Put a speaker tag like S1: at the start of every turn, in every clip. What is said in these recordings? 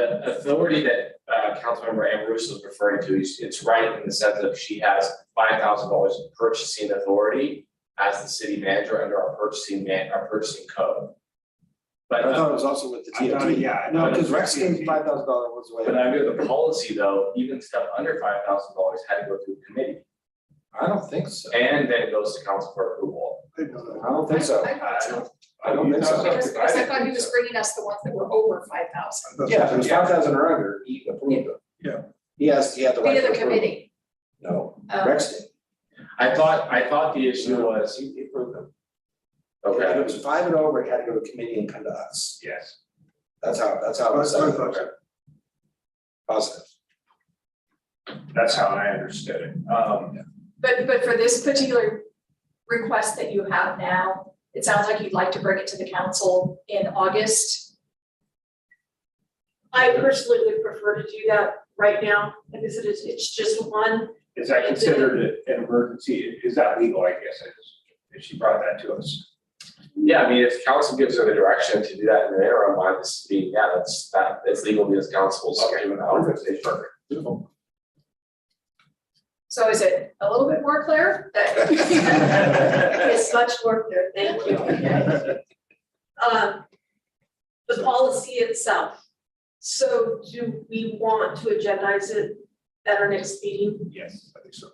S1: the authority that uh Councilmember Ambrose was referring to, is it's right in the sense that she has five thousand dollars in purchasing authority as the city manager under our purchasing man, our purchasing code. But
S2: I
S1: uh,
S2: thought it was also with the
S3: I thought,
S2: TOT.
S3: yeah. I
S2: No,
S3: thought it
S2: because
S3: was
S2: Rex gave
S3: TNT.
S2: five thousand dollar was the
S1: but
S2: way.
S1: under the policy though, even stuff under five thousand dollars had to go through committee
S2: I don't think so.
S1: and then it goes to council for approval.
S3: I didn't know that.
S2: I don't think so.
S4: I thought so,
S2: I don't think so.
S4: because, because I thought he was bringing us the ones that were over five thousand,
S3: That's-
S2: Yeah, if it was five thousand or under, he approved them.
S3: Yeah.
S2: He asked, he had the
S4: the
S2: right.
S4: other
S2: to approve.
S4: committee.
S2: No,
S4: Um,
S2: Rex did.
S1: I thought, I thought the issue was,
S2: He he approved them. If it
S1: okay,
S2: was five and over, it had to go to committee and come to us.
S3: Yes.
S2: That's how, that's how it was.
S3: That's what I thought.
S2: Positive.
S3: That's how I understood it. Um,
S4: But, but for this particular request that you have now, it sounds like you'd like to bring it to the council in August.
S5: I personally would prefer to do that right now, because it is, it's just one,
S3: is that considered a- an emergency? Is that legal, I guess, is- if she brought that to us?
S1: yeah, I mean, if council gives her the direction to do that in the interim, why this being, yeah, that's that, it's legal because council's doing that.
S2: Beautiful.
S4: So is it a little bit more clear that?
S5: it's much more clear, thank you. Um, the policy itself. So do we want to agendize it at our next meeting?
S3: Yes, I think so.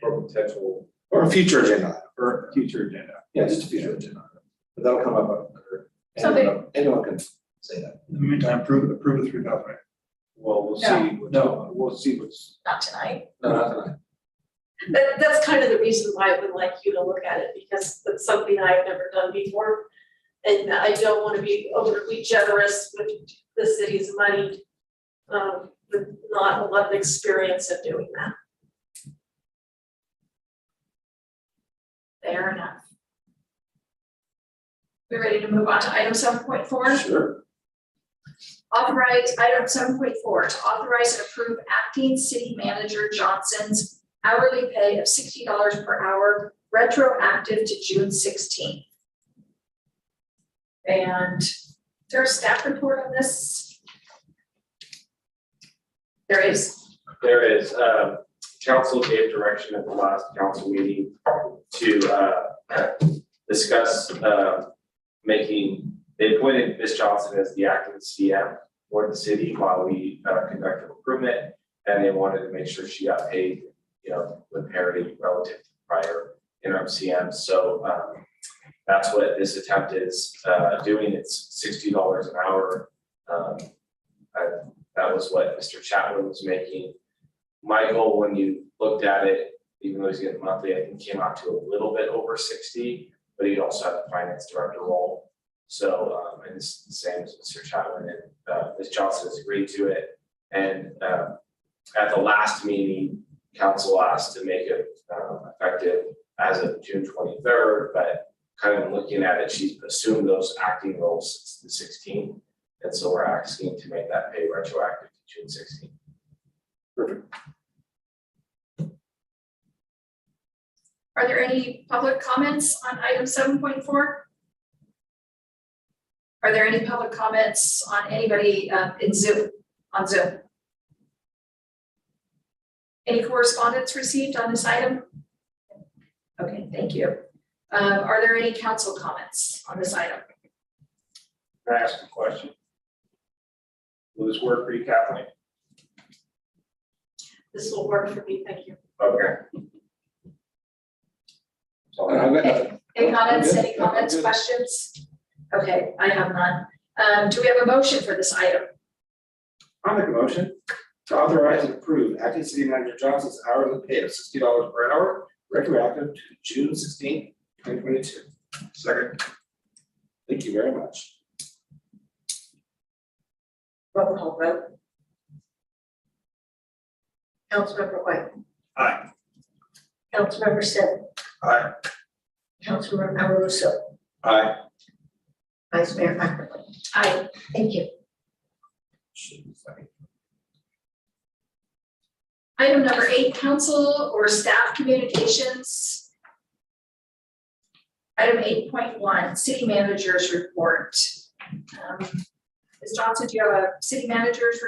S1: For potential.
S2: Or a future agenda. item.
S3: For future agenda.
S2: Yeah, just a future agenda. item. But that'll come up. under-
S4: Something-
S2: anyone- Anyone can say that.
S6: In the meantime, approve, approve the three thousand.
S3: Well, we'll
S4: No.
S3: see. No, we'll see what's.
S4: Not tonight.
S2: No, not tonight.
S5: That, that's kind of the reason why I would like you to look at it, because that's something I've never done before. And I don't want to be overly generous with the city's money, um, with not a lot of experience of doing that.
S4: Fair enough. We ready to move on to item seven point four?
S2: Sure.
S4: Authorize, item seven point four, to authorize and approve acting city manager Johnson's hourly pay of sixty dollars per hour retroactive to June sixteenth. And is there a staff report on this? There is,
S1: There is, uh, council gave direction at the last council meeting to, uh, discuss, uh, making, they appointed Ms. Johnson as the acting CM for the city while we, uh, conduct the recruitment. And they wanted to make sure she got paid, you know, with parity relative to prior interim CM. So, um, that's what this attempt is, uh, doing. It's sixty dollars an hour. Um, I- that was what Mr. Chapman was making. Michael, when you looked at it, even though he's getting monthly, I think came out to a little bit over sixty, but he also had the finance director role. So, um, and it's the same as Mr. Chapman and, uh, Ms. Johnson has agreed to it. And, um, at the last meeting, council asked to make it, um, effective as of June twenty-third, but kind of looking at it, she's assumed those acting roles since the sixteenth. And so we're asking to make that pay retroactive to June sixteenth.
S4: are there any public comments on item seven point four? Are there any public comments on anybody uh, in Zoom, on Zoom? Any correspondence received on this item? Okay, thank you. Um, Are there any council comments on this item?
S3: Can I ask a question? Will this work for you, Kathleen?
S5: This will work for me, thank you.
S3: Okay. So I-
S4: Any comments,
S2: I'm
S4: any
S2: good. I'm
S4: comments,
S2: good.
S4: questions? Okay, I have none. Um, Do we have a motion for this item?
S2: I'll make a motion to authorize and approve acting city manager Johnson's hourly pay of sixty dollars per hour retroactive to June sixteenth, twenty twenty-two. Second. Thank you very much.
S5: Roll call vote. Councilmember White.
S3: Aye.
S5: Councilmember Stitt.
S2: Aye.
S5: Councilmember Alarissa.
S2: Aye.
S5: Vice Mayor McAvoy. Aye. Thank you.
S4: Item number eight, council or staff communications. Item eight point one, city managers report. Um, Ms. Johnson, do you have a city managers report?